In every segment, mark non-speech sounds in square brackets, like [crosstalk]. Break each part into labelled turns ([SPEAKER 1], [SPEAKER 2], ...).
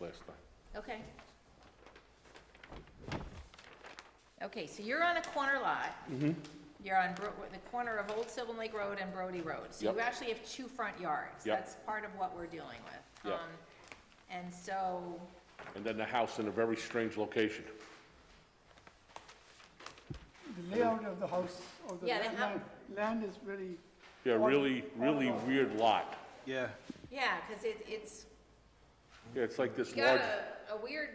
[SPEAKER 1] last time.
[SPEAKER 2] Okay. Okay, so you're on a corner lot.
[SPEAKER 1] Mm-hmm.
[SPEAKER 2] You're on Bro- the corner of Old Sylvan Lake Road and Brody Road. So you
[SPEAKER 1] Yep.
[SPEAKER 2] actually have two front yards.
[SPEAKER 1] Yep.
[SPEAKER 2] That's part of what we're dealing with.
[SPEAKER 1] Yep.
[SPEAKER 2] Um, And so,
[SPEAKER 1] And then the house in a very strange location.
[SPEAKER 3] The layout of the house, of the
[SPEAKER 2] Yeah, the
[SPEAKER 3] la-
[SPEAKER 2] hou-
[SPEAKER 3] land, land is very.
[SPEAKER 1] Yeah, really, really weird lot.
[SPEAKER 4] Yeah,
[SPEAKER 2] yeah, because it, it's
[SPEAKER 1] Yeah, it's like this
[SPEAKER 2] you got
[SPEAKER 1] large,
[SPEAKER 2] a, a weird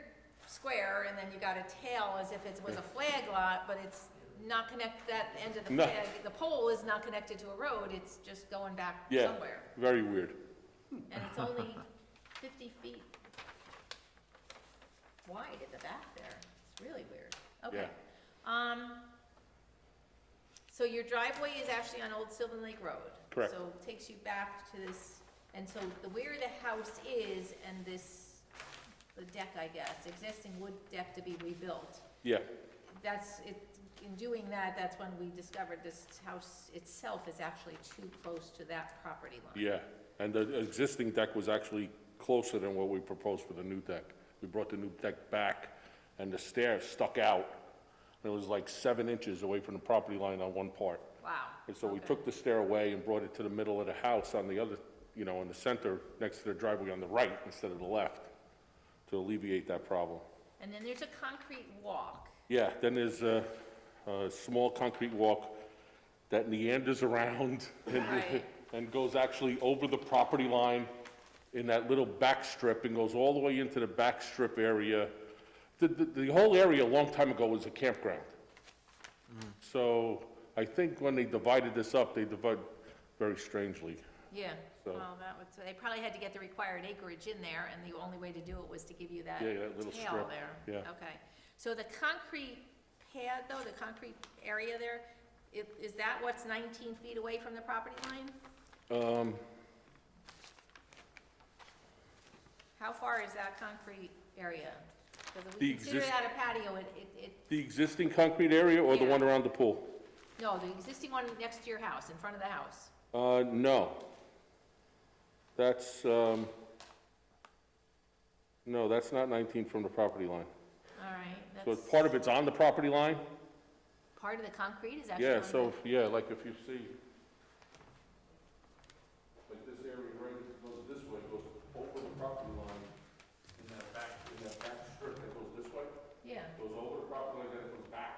[SPEAKER 2] square and then you got a tail as if it was a flag lot, but it's not connect, that end of the
[SPEAKER 1] No.
[SPEAKER 2] flag, the pole is not connected to a road. It's just going back
[SPEAKER 1] yeah,
[SPEAKER 2] somewhere.
[SPEAKER 1] very weird.
[SPEAKER 2] And it's only fifty feet wide at the back there. It's really weird. Okay. Um, so your driveway is actually on Old Sylvan Lake Road.
[SPEAKER 1] Correct.
[SPEAKER 2] So it takes you back to this, and so the where the house is and this, the deck, I guess, existing wood deck to be rebuilt.
[SPEAKER 1] Yeah,
[SPEAKER 2] That's, it, in doing that, that's when we discovered this house itself is actually too close to that property line.
[SPEAKER 1] yeah. And the existing deck was actually closer than what we proposed for the new deck. We brought the new deck back, and the stair stuck out. And it was like seven inches away from the property line on one part.
[SPEAKER 2] Wow.
[SPEAKER 1] And so we
[SPEAKER 2] Okay.
[SPEAKER 1] took the stair away and brought it to the middle of the house on the other, you know, in the center, next to the driveway on the right instead of the left, to alleviate that problem.
[SPEAKER 2] And then there's a concrete walk.
[SPEAKER 1] Yeah, then there's a, a small concrete walk that meanders around [laughs] and,
[SPEAKER 2] Right.
[SPEAKER 1] and goes actually over the property line in that little back strip and goes all the way into the back strip area. The, the, the whole area a long time ago was a campground.
[SPEAKER 2] Mm.
[SPEAKER 1] So I think when they divided this up, they divided very strangely.
[SPEAKER 2] Yeah,
[SPEAKER 1] So-
[SPEAKER 2] well, that would, they probably had to get the required acreage in there, and the only way to do it was to give you that
[SPEAKER 1] Yeah, that little
[SPEAKER 2] tail
[SPEAKER 1] strip,
[SPEAKER 2] there.
[SPEAKER 1] yeah.
[SPEAKER 2] Okay, so the concrete pad, though, the concrete area there, i- is that what's nineteen feet away from the property line?
[SPEAKER 1] Um,
[SPEAKER 2] How far is that concrete area? Because if
[SPEAKER 1] The
[SPEAKER 2] we consider
[SPEAKER 1] exist-
[SPEAKER 2] that a patio, it, it- it,
[SPEAKER 1] the existing concrete area or the
[SPEAKER 2] Yeah.
[SPEAKER 1] one around the pool?
[SPEAKER 2] no, the existing one next to your house, in front of the house.
[SPEAKER 1] Uh, no. That's, um, no, that's not 19 from the property line.
[SPEAKER 2] All right,
[SPEAKER 1] So
[SPEAKER 2] that's,
[SPEAKER 1] it's- part of it's on the property line?
[SPEAKER 2] part of the concrete is actually on
[SPEAKER 1] Yeah,
[SPEAKER 2] the-
[SPEAKER 1] so, yeah, like if you see, like this area right, it goes this way, goes over the property line in that back, in that back strip that goes this way,
[SPEAKER 2] Yeah,
[SPEAKER 1] goes over the property line, then it goes back.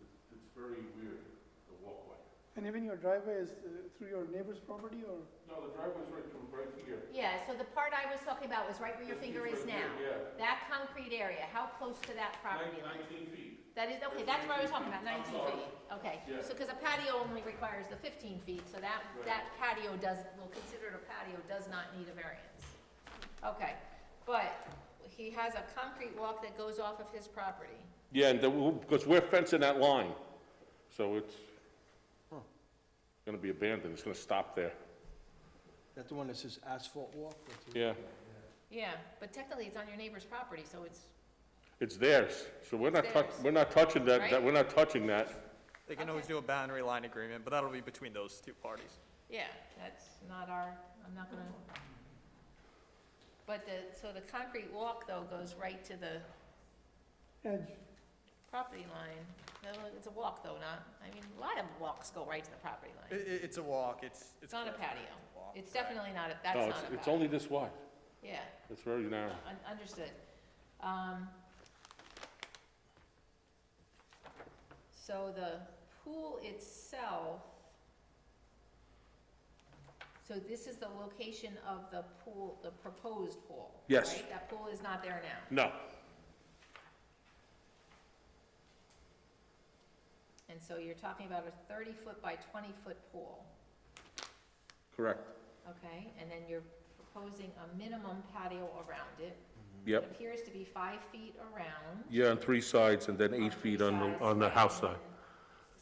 [SPEAKER 1] It's- It's very weird, the walkway.
[SPEAKER 3] And even your driveway is uh, through your neighbor's property or?
[SPEAKER 1] No, the driveway's right from right here.
[SPEAKER 2] yeah, so the part I was talking about was right where your finger is now.
[SPEAKER 1] Yeah.
[SPEAKER 2] That concrete area, how close to that property line?
[SPEAKER 1] Nineteen feet.
[SPEAKER 2] That is, okay, that's what I was talking about,
[SPEAKER 1] I'm
[SPEAKER 2] nineteen
[SPEAKER 1] sorry.
[SPEAKER 2] feet, okay.
[SPEAKER 1] Yeah.
[SPEAKER 2] So, because a patio only requires the fifteen feet, so that,
[SPEAKER 1] Right.
[SPEAKER 2] that patio does, well, considered a patio does not need a variance. Okay, but he has a concrete walk that goes off of his property.
[SPEAKER 1] Yeah, and the, because we're fencing that line, so it's gonna be abandoned, it's gonna stop there.
[SPEAKER 4] that's the one that says asphalt walk. that's it.
[SPEAKER 1] Yeah,
[SPEAKER 2] Yeah, but technically it's on your neighbor's property, so it's,
[SPEAKER 1] it's theirs, so we're not,
[SPEAKER 2] It's
[SPEAKER 1] touch-
[SPEAKER 2] theirs.
[SPEAKER 1] we're not touching that,
[SPEAKER 2] Right?
[SPEAKER 1] that, we're not touching that.
[SPEAKER 5] They can always do a boundary line agreement, but that'll be between those two parties.
[SPEAKER 2] yeah, that's not our, I'm not gonna. But the, so the concrete walk though goes right to the
[SPEAKER 3] Edge,
[SPEAKER 2] property line. No, It's a walk though, not, I mean, a lot of walks go right to the property line.
[SPEAKER 5] I- i- it's a walk, it's, it's.
[SPEAKER 2] It's not a
[SPEAKER 5] close, but
[SPEAKER 2] patio.
[SPEAKER 5] a walk,
[SPEAKER 2] It's
[SPEAKER 5] right.
[SPEAKER 2] definitely not, a that's
[SPEAKER 1] No,
[SPEAKER 2] not a
[SPEAKER 1] it's,
[SPEAKER 2] patio.
[SPEAKER 1] it's only this wide,
[SPEAKER 2] Yeah,
[SPEAKER 1] it's very narrow.
[SPEAKER 2] un- understood. Um, So the pool itself, so this is the location of the pool, the proposed pool?
[SPEAKER 1] Yes.
[SPEAKER 2] right? That pool is not there now,
[SPEAKER 1] No,
[SPEAKER 2] and so you're talking about a thirty-foot by twenty-foot pool,
[SPEAKER 1] correct,
[SPEAKER 2] okay? And then you're proposing a minimum patio around it. It
[SPEAKER 1] yep,
[SPEAKER 2] appears to be five feet around.
[SPEAKER 1] yeah, on three sides, and then
[SPEAKER 2] on
[SPEAKER 1] eight
[SPEAKER 2] three
[SPEAKER 1] feet on
[SPEAKER 2] sides,
[SPEAKER 1] the, on the house side.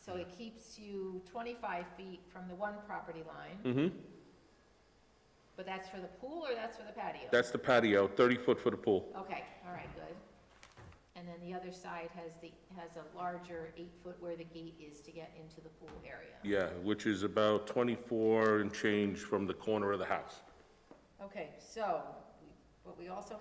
[SPEAKER 2] So it keeps you twenty-five feet from the one property line.
[SPEAKER 1] Mm-hmm,
[SPEAKER 2] But that's for the pool or that's for the patio?
[SPEAKER 1] that's the patio, thirty foot for the pool.
[SPEAKER 2] Okay, all right, good. And then the other side has the, has a larger eight-foot where the gate is to get into the pool area.
[SPEAKER 1] Yeah, which is about twenty-four and change from the corner of the house.
[SPEAKER 2] Okay, so But we also